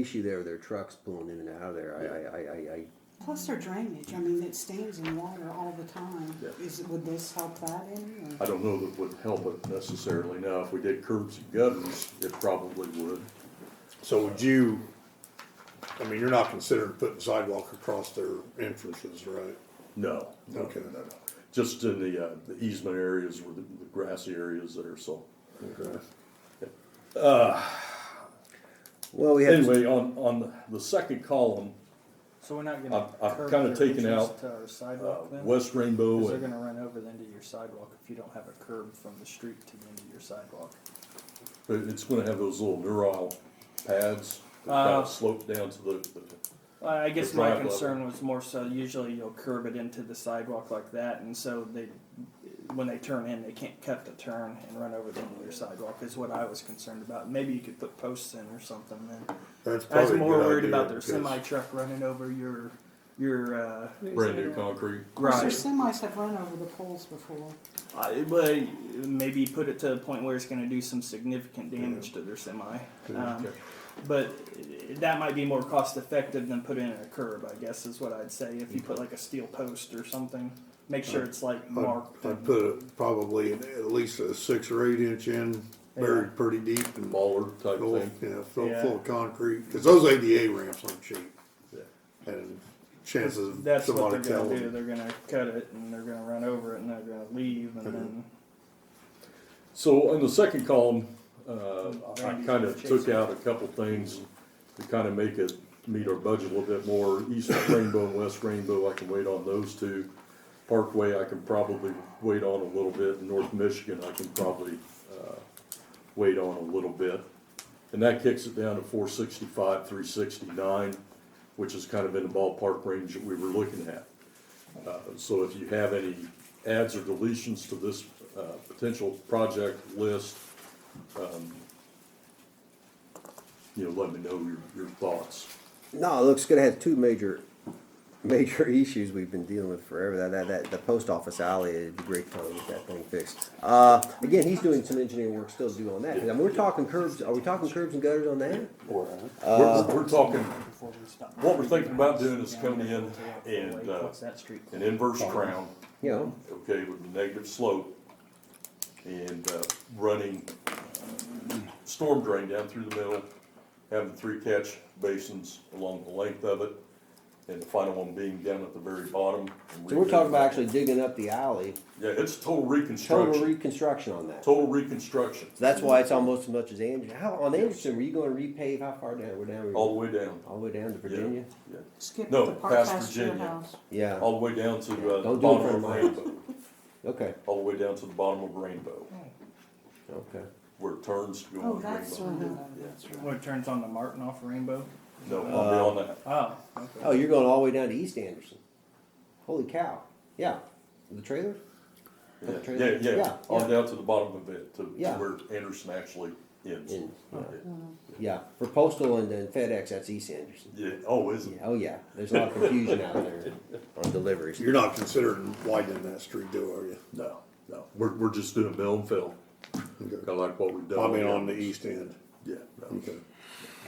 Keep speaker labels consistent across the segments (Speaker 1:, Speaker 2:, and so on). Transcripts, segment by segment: Speaker 1: issue there with their trucks pulling in and out of there, I, I, I, I, I,
Speaker 2: Plus their drainage, I mean, it stains in water all the time.
Speaker 3: Yeah.
Speaker 2: Is, would this help that in,
Speaker 3: I
Speaker 2: or?
Speaker 3: don't know that would help it necessarily now. If we did curbs and gutters, it probably would.
Speaker 4: So would you, I mean, you're not considering putting sidewalk across their entrances, right?
Speaker 3: No.
Speaker 4: Okay.
Speaker 3: No, no. Just in the, uh, the easement areas where the the grassy areas there, so.
Speaker 4: Okay.
Speaker 1: well, we have,
Speaker 3: Anyway, on, on the- the second column,
Speaker 5: So we're not gonna.
Speaker 3: I've- I've
Speaker 5: curb
Speaker 3: kinda
Speaker 5: their
Speaker 3: taken
Speaker 5: entrance
Speaker 3: out,
Speaker 5: To our
Speaker 3: uh,
Speaker 5: sidewalk then?
Speaker 3: West Rainbow
Speaker 5: Cause they're
Speaker 3: and,
Speaker 5: gonna run over the end of your sidewalk if you don't have a curb from the street to the end of your sidewalk.
Speaker 3: but it's gonna have those little neural pads that kind
Speaker 5: Uh.
Speaker 3: of slope down to the, the-
Speaker 5: I I guess
Speaker 3: The
Speaker 5: my
Speaker 3: drive level.
Speaker 5: concern was more so usually you'll curb it into the sidewalk like that and so they, when they turn in, they can't cut the turn and run over the end of your sidewalk is what I was concerned about. Maybe you could put posts in or something then.
Speaker 4: That's
Speaker 5: I was
Speaker 4: probably a
Speaker 5: more
Speaker 4: good
Speaker 5: worried
Speaker 4: idea,
Speaker 5: about their
Speaker 4: because-
Speaker 5: semi truck running over your, your, uh,
Speaker 3: brand new concrete.
Speaker 2: Plus their
Speaker 5: garage.
Speaker 2: semis have run over the poles before.
Speaker 5: I, but Uh, maybe put it to a point where it's going to do some significant damage to their semi. Um,
Speaker 3: Okay.
Speaker 5: but that might be more cost effective than putting in a curb, I guess, is what I'd say. If you put like a steel post or something, make
Speaker 3: Uh,
Speaker 5: sure it's like marked.
Speaker 4: I'd I'd put a- probably an- at least a six or eight inch in, buried pretty deep and
Speaker 3: Baller type
Speaker 4: full,
Speaker 3: thing.
Speaker 4: you know, full,
Speaker 5: Yeah.
Speaker 4: full of concrete, cause those ADA ramps aren't cheap.
Speaker 3: Yeah.
Speaker 4: And chances of
Speaker 5: That's what
Speaker 4: somebody
Speaker 5: they're going to do.
Speaker 4: telling.
Speaker 5: They're going to cut it and they're going to run over it and they're going to leave and then
Speaker 3: So on the second column, uh, I
Speaker 5: Randy's
Speaker 3: kind
Speaker 5: gonna
Speaker 3: of
Speaker 5: chase
Speaker 3: took
Speaker 5: it.
Speaker 3: out a couple things to kind of make it meet our budget a little bit more. East Rainbow and West Rainbow, I can wait on those two. Parkway, I can probably wait on a little bit. And North Michigan, I can probably, uh, wait on a little bit. And that kicks it down to four sixty-five, three sixty-nine, which is kind of in the ballpark range that we were looking at. Uh, So if you have any adds or deletions to this uh, potential project list, um, you know, let me know your, your thoughts.
Speaker 1: no, it looks gonna have two major, major issues we've been dealing with forever, that, that, that, the post office alley, it'd be great time to get that thing fixed. Uh, again, he's doing some engineering work still to do on that, 'cause, I mean, we're talking curbs, are we talking curbs and gutters on that?
Speaker 3: We're,
Speaker 1: uh,
Speaker 3: we're talking
Speaker 5: before we stop.
Speaker 3: What we're thinking about doing is coming in and, uh,
Speaker 5: What's that street
Speaker 3: an
Speaker 5: called?
Speaker 3: inverse crown,
Speaker 1: You know,
Speaker 3: okay, with a negative slope, and uh, running storm drain down through the middle, having three catch basins along the length of it, and the final one being down at the very bottom. and
Speaker 1: so we're talking about
Speaker 3: redoing that.
Speaker 1: actually digging up the alley,
Speaker 3: Yeah, it's total
Speaker 1: total
Speaker 3: reconstruction,
Speaker 1: reconstruction on that. So
Speaker 3: total reconstruction,
Speaker 1: that's why it's almost as much as Anderson, how, on Anderson, were you gonna repave, how far down, we're down,
Speaker 3: all
Speaker 1: all
Speaker 3: the way down.
Speaker 1: the way down to
Speaker 3: Yeah,
Speaker 1: Virginia?
Speaker 3: Yeah,
Speaker 2: Skip
Speaker 3: No,
Speaker 2: the part
Speaker 3: past
Speaker 2: past your
Speaker 3: Virginia.
Speaker 2: house.
Speaker 1: Yeah,
Speaker 3: all the way down to uh, the
Speaker 1: Don't do it
Speaker 3: bottom
Speaker 1: for
Speaker 3: of
Speaker 1: mine.
Speaker 3: Rainbow,
Speaker 1: okay,
Speaker 3: all the way down to the bottom of Rainbow,
Speaker 1: okay.
Speaker 3: where it turns to go
Speaker 2: Oh,
Speaker 3: on
Speaker 2: that's, uh,
Speaker 3: Rainbow.
Speaker 2: that's
Speaker 5: Where it turns on the Martin off Rainbow.
Speaker 3: No, I'll be on that.
Speaker 5: Oh, okay.
Speaker 1: Oh, you're going all the way down to East Anderson. Holy cow. Yeah. The trailer?
Speaker 3: Yeah,
Speaker 1: Okay.
Speaker 3: yeah, yeah,
Speaker 1: Yeah,
Speaker 3: on
Speaker 1: yeah.
Speaker 3: down to the bottom of it, to to
Speaker 1: Yeah.
Speaker 3: where Anderson actually ends.
Speaker 1: In,
Speaker 3: Yeah.
Speaker 1: yeah. For postal and then FedEx, that's East Anderson.
Speaker 3: Yeah, oh, is
Speaker 1: Yeah,
Speaker 3: it?
Speaker 1: Oh, yeah. There's a lot of confusion out there on deliveries.
Speaker 4: You're not considering widening that street, do are you?
Speaker 3: No, no, we're, we're just doing mill and fill, kinda like what we've done.
Speaker 4: I mean, on the east end.
Speaker 3: Yeah, no.
Speaker 4: Okay.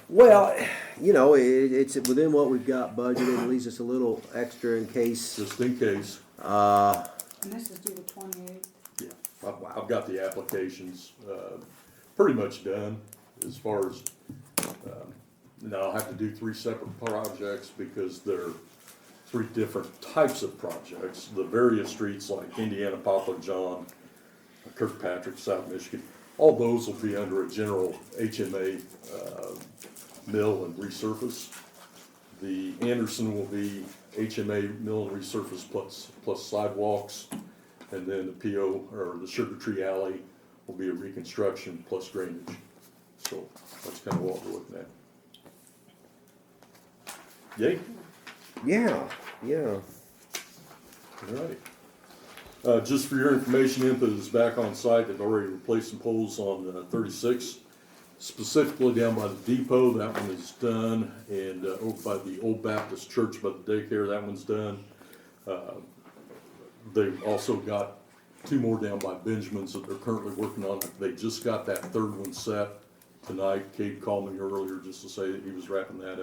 Speaker 1: Well, you know, it, it's within what we've got budgeted. It leaves us a little extra in case.
Speaker 3: just in case,
Speaker 1: Uh,
Speaker 2: And this is due to twenty-eight.
Speaker 3: Yeah, I've, I've got the applications, uh, pretty much done as far as, um, now I'll have to do three separate projects because they're three different types of projects. The various streets like Indiana, Poplar John, Kirkpatrick, South Michigan, all those will be under a general HMA, uh, mill and resurface. The Anderson will be HMA mill and resurface plus, plus sidewalks. And then the PO, or the Sugar Tree Alley will be a reconstruction plus drainage. So that's kind of what we're looking at. Yay,
Speaker 1: yeah, yeah.
Speaker 3: all right. Uh, just for your information, IMPA is back on site. They've already replaced some poles on uh, thirty-six, specifically down by the depot. That one is done. And, uh, over by the Old Baptist Church by the daycare, that one's done. Uh, They've also got two more down by Benjamin's that they're currently working on. They just got that third one set tonight. Kate called me earlier just to say that he was wrapping that up.